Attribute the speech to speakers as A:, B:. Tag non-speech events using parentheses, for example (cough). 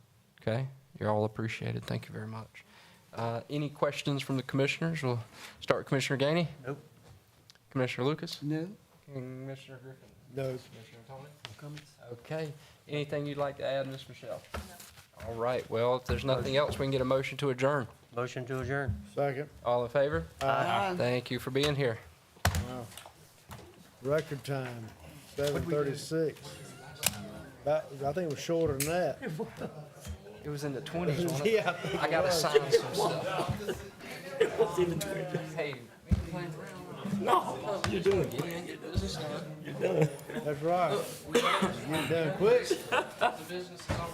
A: Okay, you're all appreciated. Thank you very much. Uh, Any questions from the commissioners? We'll start with Commissioner Gainey.
B: Nope.
A: Commissioner Lucas?
B: No.
A: Commissioner Griffin?
B: No.
A: Commissioner Tony? Okay, anything you'd like to add, Ms. Michelle? All right, well, if there's nothing else, we can get a motion to adjourn.
B: Motion to adjourn.
C: Second.
A: All in favor?
C: Aye.
A: Thank you for being here.
C: Wow. Record time, seven thirty-six. That, I think it was shorter than that.
A: It was in the 20s, wasn't it?
C: (laughs) Yeah.
A: I gotta sign some stuff. (laughs) Hey,
C: That's right. Getting done quick.
A: the business is all